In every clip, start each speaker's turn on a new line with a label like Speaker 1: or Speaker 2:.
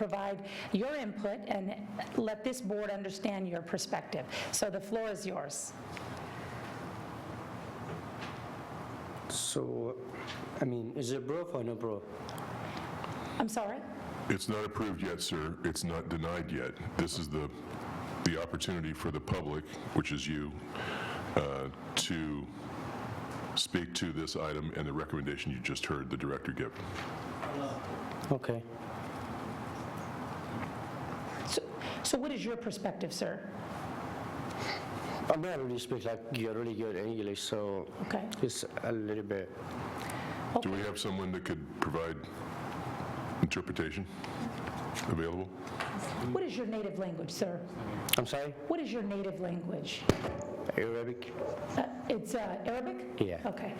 Speaker 1: provide your input and let this board understand your perspective. So the floor is yours.
Speaker 2: So, I mean, is it approved or no approved?
Speaker 1: I'm sorry?
Speaker 3: It's not approved yet, sir. It's not denied yet. This is the, the opportunity for the public, which is you, uh, to speak to this item and the recommendation you just heard the director give.
Speaker 2: Okay.
Speaker 1: So- So what is your perspective, sir?
Speaker 2: I mean, I really speak like you're really good in English, so
Speaker 1: Okay.
Speaker 2: it's a little bit.
Speaker 3: Do we have someone that could provide interpretation available?
Speaker 1: What is your native language, sir?
Speaker 2: I'm sorry,
Speaker 1: What is your native language?
Speaker 2: Arabic.
Speaker 1: Uh, It's uh, Arabic?
Speaker 2: Yeah.
Speaker 1: Okay.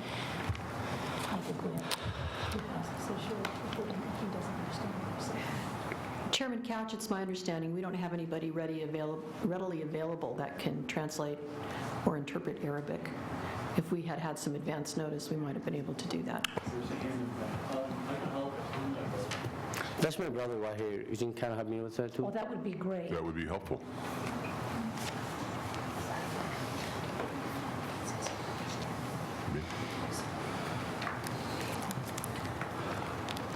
Speaker 4: Chairman Couch, it's my understanding, we don't have anybody ready avail- readily available that can translate or interpret Arabic. If we had had some advance notice, we might have been able to do that.
Speaker 2: That's my brother right here. You think can help me with that
Speaker 1: Well,
Speaker 2: too?
Speaker 1: Oh, that would be great.
Speaker 3: That would be helpful.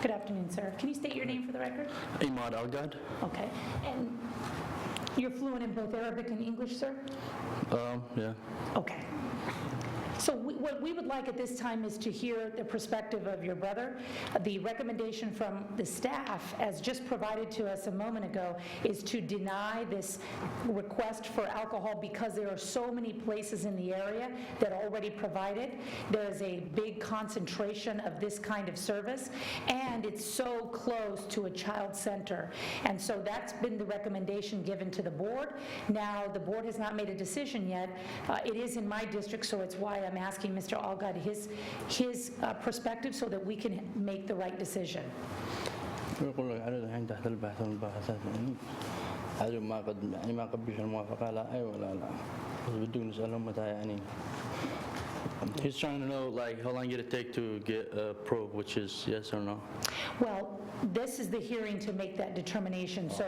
Speaker 1: Good afternoon, sir. Can you state your name for the record?
Speaker 2: Imad Algad.
Speaker 1: Okay. And you're fluent in both Arabic and English, sir?
Speaker 2: Um, yeah.
Speaker 1: Okay. So we- what we would like at this time is to hear the perspective of your brother. The recommendation from the staff, as just provided to us a moment ago, is to deny this request for alcohol because there are so many places in the area that already provide it. There is a big concentration of this kind of service, and it's so close to a child center. And so that's been the recommendation given to the board. Now, the board has not made a decision yet. Uh, It is in my district, so it's why I'm asking Mr. Algod his, his uh, perspective so that we can make the right decision.
Speaker 5: ويقول لك عدد الحين تحت البحث والمباحثات يعني عدد ما قد يعني ما قبلش الموافقة لا أي ولا لا بدون نسألهم متى يعني
Speaker 6: He's trying to know like how long it'd take to get a probe, which is yes or no.
Speaker 1: Well, this is the hearing to make that determination. So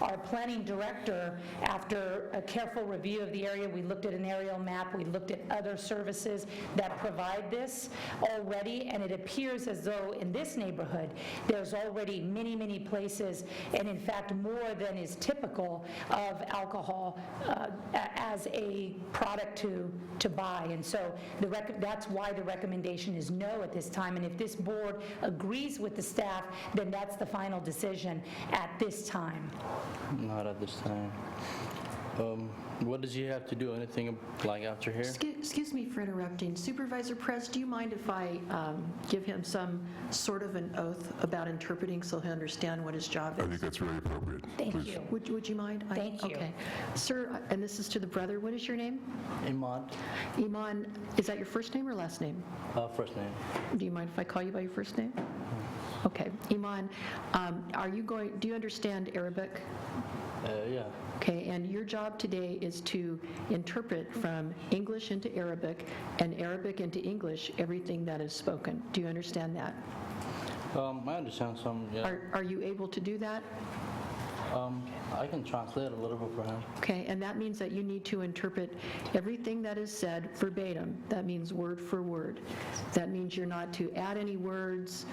Speaker 1: our planning director, after a careful review of the area, we looked at an aerial map, we looked at other services that provide this already, and it appears as though in this neighborhood, there's already many, many places, and in fact, more than is typical of alcohol uh, a- as a product to, to buy. And so the, rec- that's why the recommendation is no at this time. And if this board agrees with the staff, then that's the final decision at this time.
Speaker 5: not at this time. Um, what does he have to do? Anything like after here?
Speaker 4: Excuse excuse me for interrupting. Supervisor Perez, do you mind if I um, give him some sort of an oath about interpreting so he'll understand what his job
Speaker 3: I
Speaker 4: is?
Speaker 3: think that's really appropriate.
Speaker 1: Thank
Speaker 3: Please.
Speaker 1: you.
Speaker 4: Would would you mind? I-
Speaker 1: Thank you.
Speaker 4: Okay. Sir, uh, and this is to the brother, what is your name?
Speaker 5: Imad,
Speaker 4: Iman, is that your first name or last name?
Speaker 5: uh, first name.
Speaker 4: Do you mind if I call you by your first name? Okay. Iman, um, are you going, do you understand Arabic?
Speaker 5: Uh, yeah,
Speaker 4: Okay, and your job today is to interpret from English into Arabic and Arabic into English everything that is spoken. Do you understand that?
Speaker 5: um, I understand some. Yeah,
Speaker 4: Are are you able to do that?
Speaker 5: um, I can translate a little bit for him.
Speaker 4: Okay, and that means that you need to interpret everything that is said verbatim. That means word for word. That means you're not to add any words,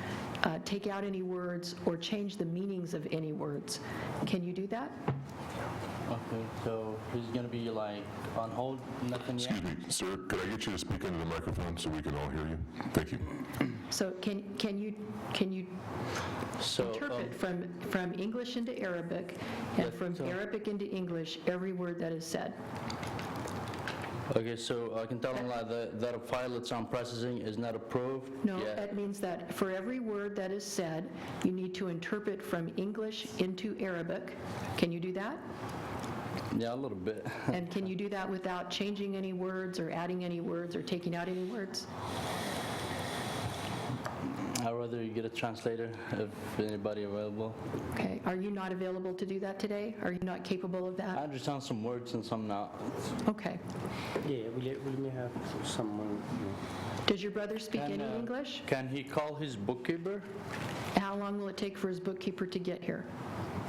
Speaker 4: uh, take out any words, or change the meanings of any words. Can you do that?
Speaker 5: Okay, so he's gonna be like on hold, nothing yet.
Speaker 3: Excuse me, sir, could I get you to speak into the microphone so we can all hear you? Thank you.
Speaker 4: So can can you, can you
Speaker 5: So um,
Speaker 4: interpret from, from English into Arabic, and
Speaker 5: Yeah,
Speaker 4: from
Speaker 5: so-
Speaker 4: Arabic into English, every word that is said?
Speaker 5: okay, so I can tell him like that, that a file that's on processing is not approved.
Speaker 4: No,
Speaker 5: yet.
Speaker 4: that means that for every word that is said, you need to interpret from English into Arabic. Can you do that?
Speaker 5: yeah, a little bit.
Speaker 4: And can you do that without changing any words or adding any words or taking out any words?
Speaker 5: I'd rather you get a translator if anybody available.
Speaker 4: Okay, are you not available to do that today? Are you not capable of
Speaker 5: I
Speaker 4: that?
Speaker 5: understand some words and some not.
Speaker 4: Okay.
Speaker 2: Yeah, will you, will you have someone?
Speaker 4: Does your brother speak
Speaker 5: Can,
Speaker 4: any
Speaker 5: uh,
Speaker 4: English?
Speaker 5: Can he call his bookkeeper?
Speaker 4: How long will it take for his bookkeeper to get here?